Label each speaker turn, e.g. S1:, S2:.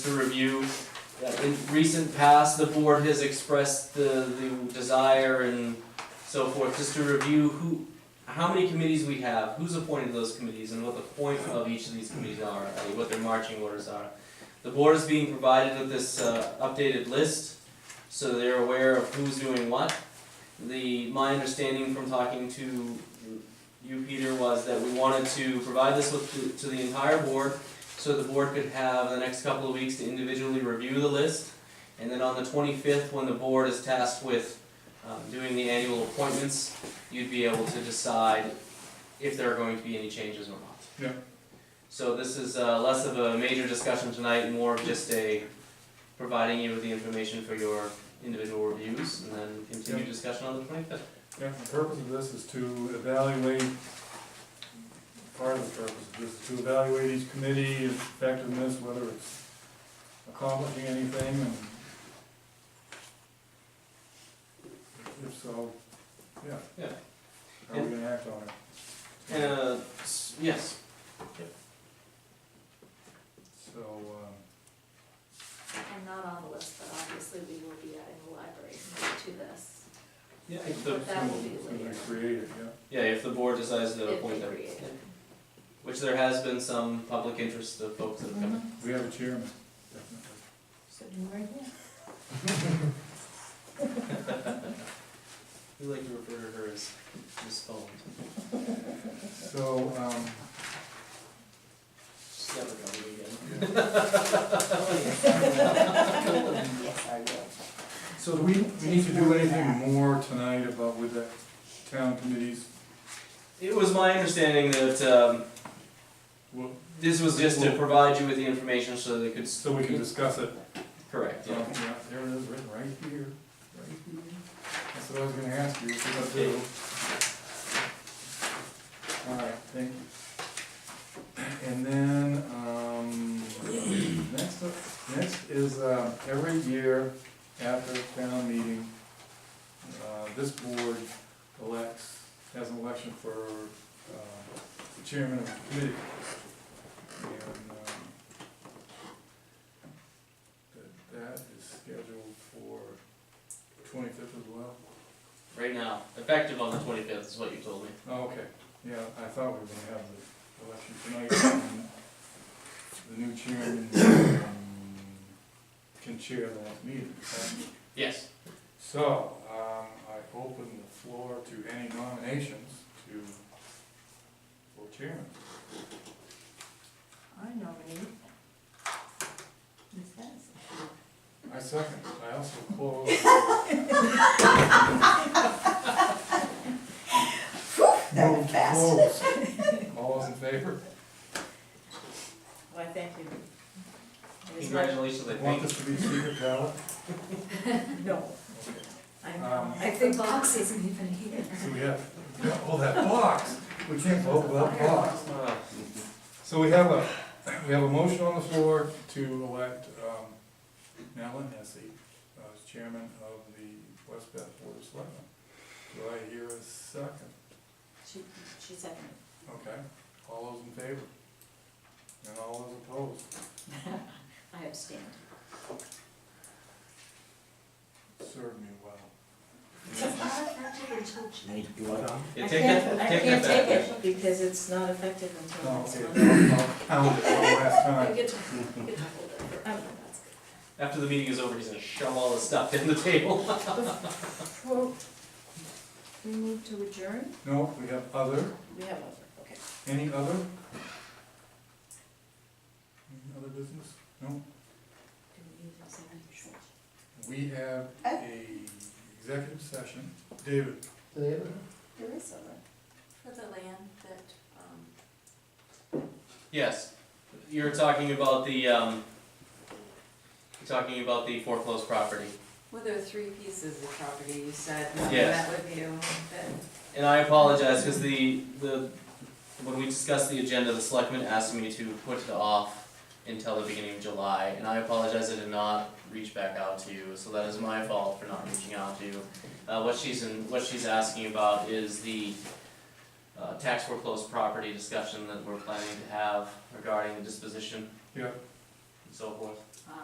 S1: to review. Uh, In recent past, the board has expressed the, the desire and so forth, just to review who, how many committees we have, who's appointed those committees, and what the point of each of these committees are, i.e. what their marching orders are. The board is being provided with this uh, updated list, so they're aware of who's doing what. The, my understanding from talking to you, Peter, was that we wanted to provide this with, to the entire board, so the board could have the next couple of weeks to individually review the list. And then on the twenty-fifth, when the board is tasked with um, doing the annual appointments, you'd be able to decide if there are going to be any changes or not.
S2: Yeah.
S1: So this is uh, less of a major discussion tonight, more of just a providing you with the information for your individual reviews and then continue
S2: Yeah.
S1: discussion on the twenty-fifth.
S2: Yeah, the purpose of this is to evaluate, part of the purpose of this is to evaluate each committee effectiveness, whether it's accomplishing anything, and if so, yeah.
S1: Yeah.
S2: How are we gonna act on it?
S1: Uh, s- yes,
S2: So, um,
S3: I'm not on the list, but obviously we will be adding the library to this.
S1: yeah, if the,
S3: But that will be
S2: it's gonna
S3: later.
S2: be creative, yeah.
S1: yeah, if the board decides to
S3: If we
S1: appoint them.
S3: create it.
S1: Which there has been some public interest of folks that have come.
S2: We have a chairman, definitely.
S4: Sitting right here. Mm-hmm.
S1: We like to refer to her as Miss Phone.
S2: So, um,
S1: She's never coming again.
S4: Yes, I will.
S2: So do we, we need to do anything more tonight about with the town committees?
S1: It was my understanding that, um,
S2: Well,
S1: this was just to provide you with the information so they could. s-
S2: So we can discuss it.
S1: Correct,
S2: Yeah,
S1: yeah.
S2: there it is, written right here, right here. That's what I was gonna ask you, what you're gonna do. All right, thank you. And then, um, next, up- next is, uh, every year after town meeting, uh, this board elects, has an election for, uh, the chairman of the committee. And, um, that that is scheduled for twenty-fifth as well?
S1: Right now, effective on the twenty-fifth is what you told me.
S2: Oh, okay, yeah, I thought we were gonna have the election tonight, and the new chairman, um, can chair that meeting. right?
S1: Yes.
S2: So, um, I open the floor to any nominations to, for chairman.
S4: I nominate Ms. Hess.
S2: I second, I also close. Move to close. All those in favor?
S4: Why, thank you. It is not-
S1: Congratulations, I think.
S2: Want this to be secret ballot?
S4: No,
S2: Okay.
S4: I
S2: Um,
S4: know.
S3: I think box isn't even here.
S2: So we have, we have- oh, that box, we can't vote without box.
S1: Uh,
S2: So we have a, we have a motion on the floor to elect, um, Madeline Hesse uh, as chairman of the West Bath Board of Selectmen. Do I hear a second?
S4: She, she seconded.
S2: Okay, all those in favor? And all those opposed?
S4: I abstained.
S2: Served me well.
S1: Yeah,
S4: I
S1: take that,
S4: Uh, can't-
S1: take
S4: I
S1: that back. Oh,
S4: can't take it because it's not effective until
S2: No,
S4: next
S2: okay,
S4: month.
S2: I'll count it one last
S3: I
S2: time.
S3: get to, I get to hold it for,
S4: Um,
S3: that's good.
S1: After the meeting is over, he's gonna shove all this stuff in the table.
S4: Well, We move to adjourn?
S2: No, we have other.
S4: We have over, okay.
S2: Any other? Any other business? No,
S4: Do we need executive session?
S2: we have a executive session. David,
S4: There is over.
S3: For the land that, um,
S1: Yes, you're talking about the, um, you're talking about the foreclosed property.
S5: Well, there are three pieces of property, you said, um,
S1: Yes.
S5: that would be the one that,
S1: And I apologize, because the, the, when we discussed the agenda, the selectmen asked me to put it off until the beginning of July, and I apologize I did not reach back out to you, so that is my fault for not reaching out to you. Uh, what she's in, what she's asking about is the, uh, tax foreclosed property discussion that we're planning to have regarding the disposition
S2: yeah,
S1: and so forth.